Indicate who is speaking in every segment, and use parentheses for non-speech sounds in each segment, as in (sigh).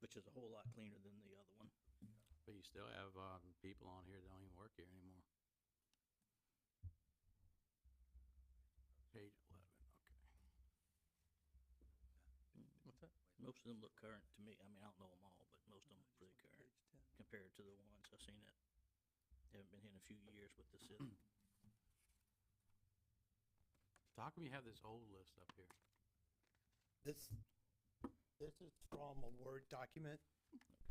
Speaker 1: which is a whole lot cleaner than the other one.
Speaker 2: But you still have, um, people on here that don't even work here anymore. Page eleven, okay.
Speaker 3: What's that?
Speaker 1: Most of them look current to me. I mean, I don't know them all, but most of them are pretty current compared to the ones I've seen that haven't been here in a few years with this is.
Speaker 2: So how come you have this old list up here?
Speaker 4: This, this is from a Word document,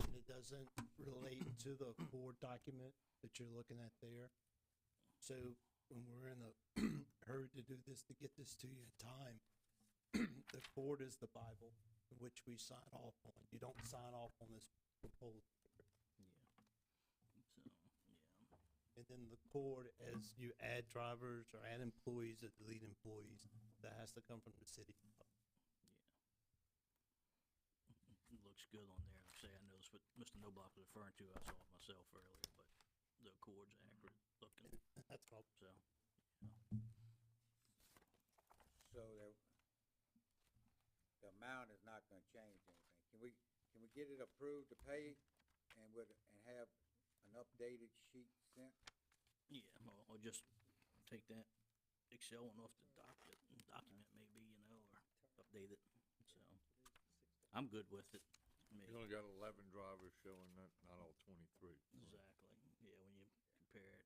Speaker 4: and it doesn't relate to the core document that you're looking at there. So when we're in a (clears throat) hurry to do this, to get this to you in time, (clears throat) the core is the Bible, which we sign off on. You don't sign off on this proposal.
Speaker 1: So, yeah.
Speaker 4: And then the core, as you add drivers or add employees or delete employees, that has to come from the city. (laughs)
Speaker 1: it looks good on there. Like I say, I know it's what Mr. Noblock was referring to. I saw it myself earlier, but the cord's accurate looking,
Speaker 4: That's what
Speaker 1: so.
Speaker 5: So the, the amount is not gonna change anything. Can we, can we get it approved to pay and would, and have an updated sheet sent?
Speaker 1: Yeah, or, or just take that Excel one off the docket, document maybe, you know, or update it, so. I'm good with it, me,
Speaker 6: You only got eleven drivers showing, not, not all twenty-three.
Speaker 1: exactly, yeah, when you compare it,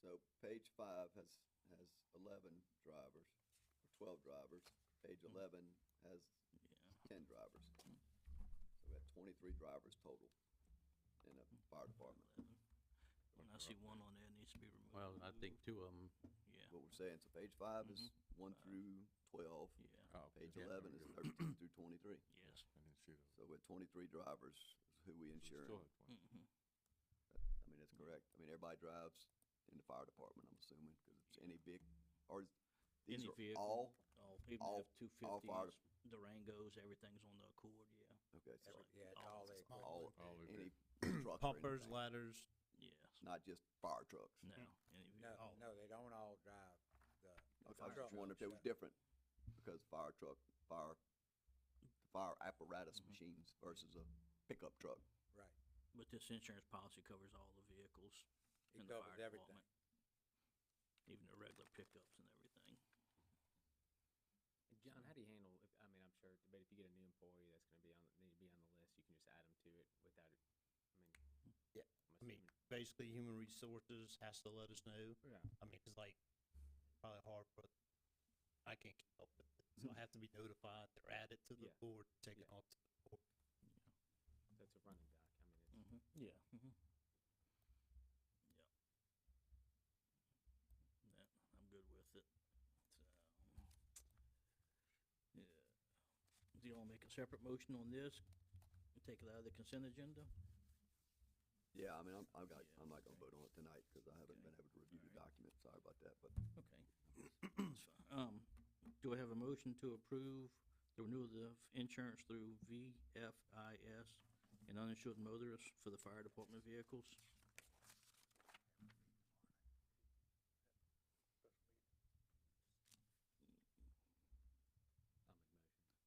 Speaker 7: So page five has, has eleven drivers, or twelve drivers. Page
Speaker 1: Mm.
Speaker 7: eleven has
Speaker 1: yeah,
Speaker 7: ten drivers. So we have twenty-three drivers total in the fire department.
Speaker 1: eleven. When I see one on there, it needs to be removed.
Speaker 2: Well, I think two of them,
Speaker 1: Yeah,
Speaker 7: What we're saying, so page five is one
Speaker 1: Uh,
Speaker 7: through twelve.
Speaker 1: yeah,
Speaker 6: Oh, okay.
Speaker 7: Page
Speaker 6: Yeah,
Speaker 7: eleven
Speaker 6: I'm
Speaker 7: is
Speaker 6: good.
Speaker 7: thirteen through twenty-three.
Speaker 1: yes.
Speaker 6: I didn't see those.
Speaker 7: So we have twenty-three drivers who we
Speaker 6: So we
Speaker 7: insure.
Speaker 6: still had 20.
Speaker 1: Mhm.
Speaker 7: I mean, that's correct. I mean, everybody drives in the fire department, I'm assuming, because it's any big, or is- these
Speaker 1: Any
Speaker 7: are
Speaker 1: vehicle.
Speaker 7: all,
Speaker 1: All, even
Speaker 7: all-
Speaker 1: if two
Speaker 7: all fire-
Speaker 1: fifties, Durangos, everything's on the Accord, yeah,
Speaker 7: okay, so
Speaker 5: Every- Yeah, it's
Speaker 1: all
Speaker 5: all
Speaker 1: the
Speaker 4: all-
Speaker 5: the equipment.
Speaker 7: all,
Speaker 6: All the
Speaker 7: Hmm. any
Speaker 6: vehicles.
Speaker 7: truck or
Speaker 4: Pumpers,
Speaker 7: anything,
Speaker 4: ladders,
Speaker 1: yes.
Speaker 7: not just fire trucks.
Speaker 1: No, any of you,
Speaker 5: No,
Speaker 1: all,
Speaker 5: no, they don't all drive the. the
Speaker 7: Okay, I was
Speaker 5: fire
Speaker 7: just wondering if they
Speaker 5: trucks.
Speaker 7: was different, because fire truck, fire, fire apparatus
Speaker 8: Mm-hmm.
Speaker 1: Mhm.
Speaker 7: machines versus a pickup truck.
Speaker 5: Right,
Speaker 1: but this insurance policy covers all the vehicles
Speaker 5: it
Speaker 1: in the
Speaker 5: covers
Speaker 1: fire
Speaker 5: everything.
Speaker 1: department. Even the regular pickups and everything.
Speaker 3: John, how do you handle, if- I mean, I'm sure, but if you get a new employee that's gonna be on, need to be on the list, you can just add them to it without it, I mean.
Speaker 4: Yeah,
Speaker 3: I'm
Speaker 4: I mean,
Speaker 3: assuming-
Speaker 4: basically, human resources has to let us know.
Speaker 3: Yeah.
Speaker 4: I mean, it's like probably hard for, I can't keep up with it, so I have to be notified. They're added to
Speaker 3: Hmm.
Speaker 4: the
Speaker 3: Yeah.
Speaker 4: board, take it
Speaker 3: Yeah.
Speaker 4: off. to the board.
Speaker 3: So it's a running doc, I mean, it's.
Speaker 1: Mm-hmm. Yeah. Mm-hmm. Yep. That, I'm good with it. So, yeah. Do you all make a separate motion on this? and Take it out of the consent agenda?
Speaker 7: Yeah, I mean, I'm, I've got,
Speaker 1: Yeah,
Speaker 7: I'm not gonna
Speaker 1: okay.
Speaker 7: vote on it tonight, because I haven't
Speaker 1: Okay.
Speaker 7: been able to review the document, sorry about that, but
Speaker 1: Okay. That's fine. Um, do I have a motion to approve the renewal of insurance through VFIS and uninsured motorists for the fire department vehicles?
Speaker 3: I'll make a motion.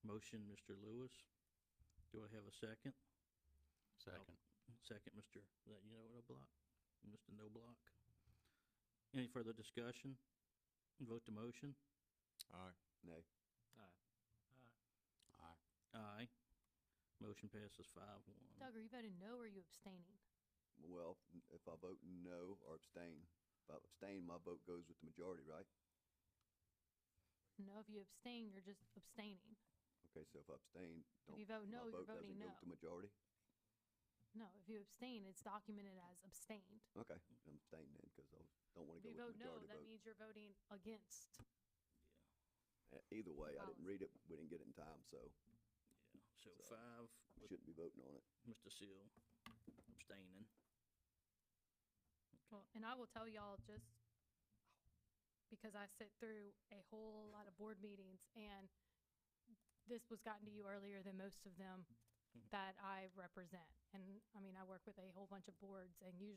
Speaker 1: Motion, Mr. Lewis. Do I have a second?
Speaker 2: second.
Speaker 1: Second, Mr., is that you know, No Block? Mr. No Block. Any further discussion? Vote to motion?
Speaker 6: All right,
Speaker 7: nay.
Speaker 2: Aye.
Speaker 1: Aye. Motion passes five one.
Speaker 8: Doug, are you voting no or are you abstaining?
Speaker 7: Well, n- if I vote no or abstain, if I abstain, my vote goes with the majority, right?
Speaker 8: No, if you abstain, you're just abstaining.
Speaker 7: Okay, so if I abstain,
Speaker 8: If
Speaker 7: don't,
Speaker 8: you vote
Speaker 7: my
Speaker 8: no, you're
Speaker 7: vote doesn't
Speaker 8: voting
Speaker 7: go
Speaker 8: no.
Speaker 7: with the majority?
Speaker 8: No, if you abstain, it's documented as abstained.
Speaker 7: Okay, I'm abstaining then, because I don't wanna
Speaker 8: Mm.
Speaker 7: go with
Speaker 8: If you vote
Speaker 7: the
Speaker 8: no,
Speaker 7: majority
Speaker 8: that
Speaker 7: vote.
Speaker 8: means you're voting against.
Speaker 7: E- Either way, I didn't
Speaker 8: policy.
Speaker 7: read it, we didn't get it in time, so
Speaker 1: Yeah, so
Speaker 7: So-
Speaker 1: five
Speaker 7: we
Speaker 1: with
Speaker 7: shouldn't be voting on it.
Speaker 1: Mr. Seal abstaining.
Speaker 8: Well, and I will tell y'all just because I sit through a whole lot of board meetings and this was gotten to you earlier than
Speaker 7: Mm-hmm.
Speaker 8: most of them that I represent. And I mean, I work with a whole bunch of boards and usually